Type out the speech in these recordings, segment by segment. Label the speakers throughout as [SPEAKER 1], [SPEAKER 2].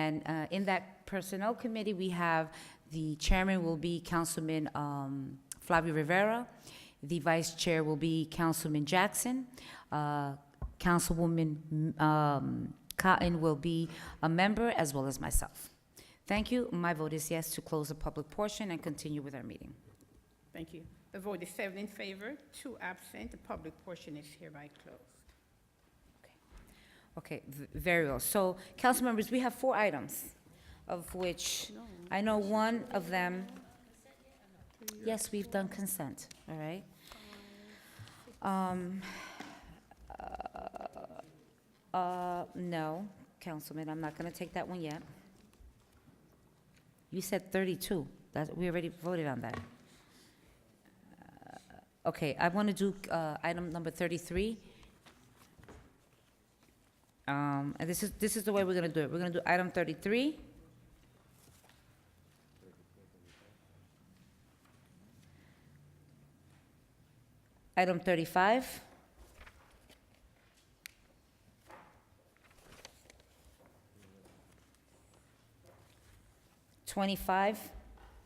[SPEAKER 1] uh, in that personnel committee, we have, the chairman will be Councilman um, Flavio Rivera, the vice chair will be Councilman Jackson, uh, Councilwoman um, Cotton will be a member, as well as myself. Thank you. My vote is yes to close the public portion and continue with our meeting.
[SPEAKER 2] Thank you. The vote is seven in favor, two absent. The public portion is hereby closed.
[SPEAKER 1] Okay, v- very well. So, council members, we have four items, of which I know one of them. Yes, we've done consent, all right? Um, uh, uh, no, Councilman, I'm not gonna take that one yet. You said thirty-two, that, we already voted on that. Uh, Okay, I wanna do, uh, item number thirty-three. Um, and this is, this is the way we're gonna do it. We're gonna do item thirty-three. Item thirty-five. Twenty-five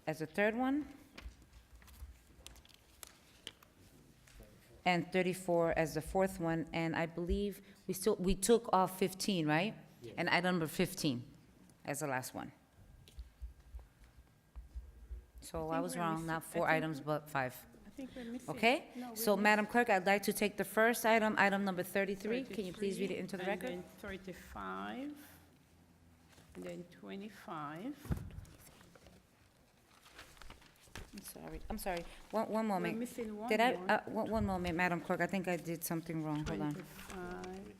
[SPEAKER 1] as a third one. and 34 as the fourth one, and I believe we still, we took off 15, right? And item number 15 as the last one. So
[SPEAKER 2] I
[SPEAKER 1] I
[SPEAKER 2] think
[SPEAKER 1] was
[SPEAKER 2] we're
[SPEAKER 1] wrong,
[SPEAKER 2] missing-
[SPEAKER 1] not
[SPEAKER 2] I
[SPEAKER 1] four
[SPEAKER 2] think-
[SPEAKER 1] items, but five,
[SPEAKER 2] I think we're missing.
[SPEAKER 1] okay?
[SPEAKER 2] No, we
[SPEAKER 1] So
[SPEAKER 2] missed
[SPEAKER 1] Madam Clerk, I'd like to take the first item, item number 33. Can you please read
[SPEAKER 2] 33,
[SPEAKER 1] it into the
[SPEAKER 2] and
[SPEAKER 1] record?
[SPEAKER 2] then Thirty-five, and then twenty-five.
[SPEAKER 1] I'm sorry, I'm sorry. One, one
[SPEAKER 2] We're
[SPEAKER 1] moment.
[SPEAKER 2] missing one
[SPEAKER 1] Did I,
[SPEAKER 2] more.
[SPEAKER 1] uh, one, one moment, Madam Clerk, I think I did something wrong, hold on.
[SPEAKER 2] 25,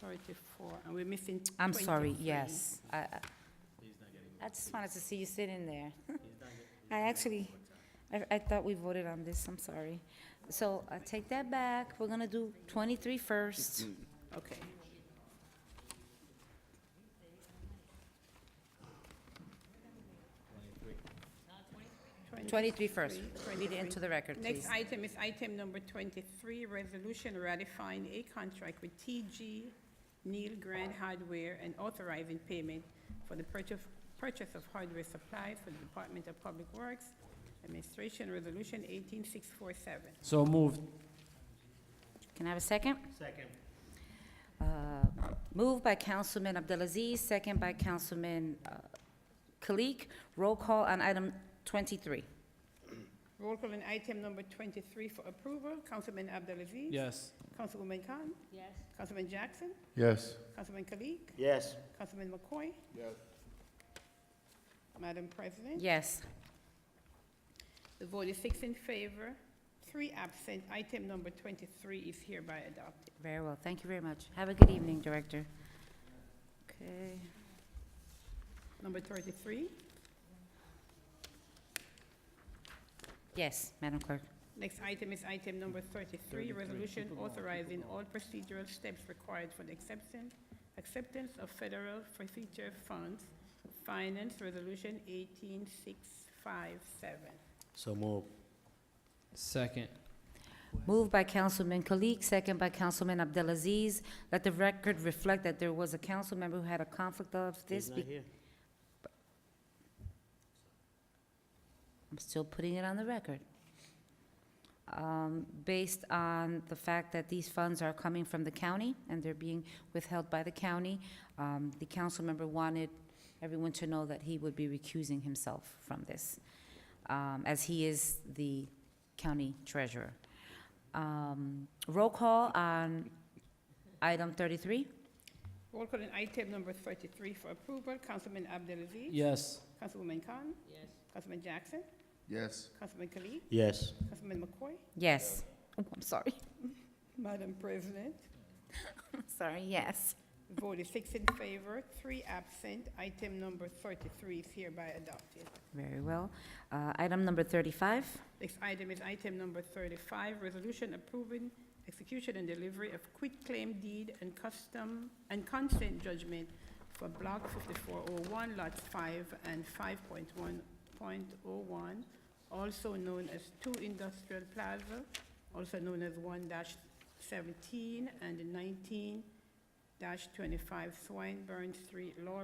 [SPEAKER 2] 34, and we're missing.
[SPEAKER 1] I'm sorry,
[SPEAKER 2] 23.
[SPEAKER 1] yes. I, I- I just wanted to see you sitting there. I actually, I, I thought we voted on this, I'm sorry. So I take that back, we're gonna do 23 first.
[SPEAKER 2] Okay. Twenty-
[SPEAKER 1] 23 first. Read it
[SPEAKER 2] 23.
[SPEAKER 1] into the record, please.
[SPEAKER 2] Next item is item number 23, resolution ratifying a contract with TG Neil Grand Hardware and authorizing payment for the purchase, purchase of hardware supplies for the Department of Public Works Administration, Resolution 18647.
[SPEAKER 3] So moved.
[SPEAKER 1] Can I have a second? Second. Moved by Councilman Abdelaziz, second by Councilman uh, Kalik. Roll call on item 23.
[SPEAKER 2] Roll call on item number 23 for approval, Councilman Abdelaziz.
[SPEAKER 3] Yes.
[SPEAKER 2] Councilwoman Khan. Yes. Councilman Jackson.
[SPEAKER 4] Yes.
[SPEAKER 2] Councilman Kalik.
[SPEAKER 4] Yes.
[SPEAKER 2] Councilman McCoy.
[SPEAKER 4] Yes.
[SPEAKER 2] Madam President.
[SPEAKER 1] Yes.
[SPEAKER 2] The vote is six in favor, three absent. Item number 23 is hereby adopted.
[SPEAKER 1] Very well, thank you very much. Have a good evening, Director. Okay.
[SPEAKER 2] Number 33,
[SPEAKER 1] Yes, Madam Clerk.
[SPEAKER 2] next item is item number 33, resolution authorizing all procedural steps required for the acceptance, acceptance of federal forfeiture funds, finance resolution 18657.
[SPEAKER 4] So move.
[SPEAKER 3] Second.
[SPEAKER 1] Moved by Councilman Kalik, second by Councilman Abdelaziz. Let the record reflect that there was a council member who had a conflict of this. be- I'm still putting it on the record. Um, Based on the fact that these funds are coming from the county and they're being withheld by the county, um, the council member wanted everyone to know that he would be recusing himself from this, um, as he is the county treasurer. Um, Roll call on item 33?
[SPEAKER 2] Roll call on item number 33 for approval, Councilman Abdelaziz.
[SPEAKER 3] Yes.
[SPEAKER 2] Councilwoman Khan. Yes. Councilman Jackson.
[SPEAKER 4] Yes.
[SPEAKER 2] Councilman Kalik.
[SPEAKER 4] Yes.
[SPEAKER 2] Councilman McCoy.
[SPEAKER 1] Yes. Oh, I'm sorry.
[SPEAKER 2] Madam President.
[SPEAKER 1] Sorry, yes.
[SPEAKER 2] Voted six in favor, three absent. Item number 33 is hereby adopted.
[SPEAKER 1] Very well. Uh, Item number 35?
[SPEAKER 2] Next item is item number 35, resolution approving execution and delivery of quitclaim deed and custom and consent judgment for Block 5401, Lots 5 and 5.1.01, also known as 2 Industrial Plaza, also known as 1-17 and 19-25 Swinburne Street, Laurel.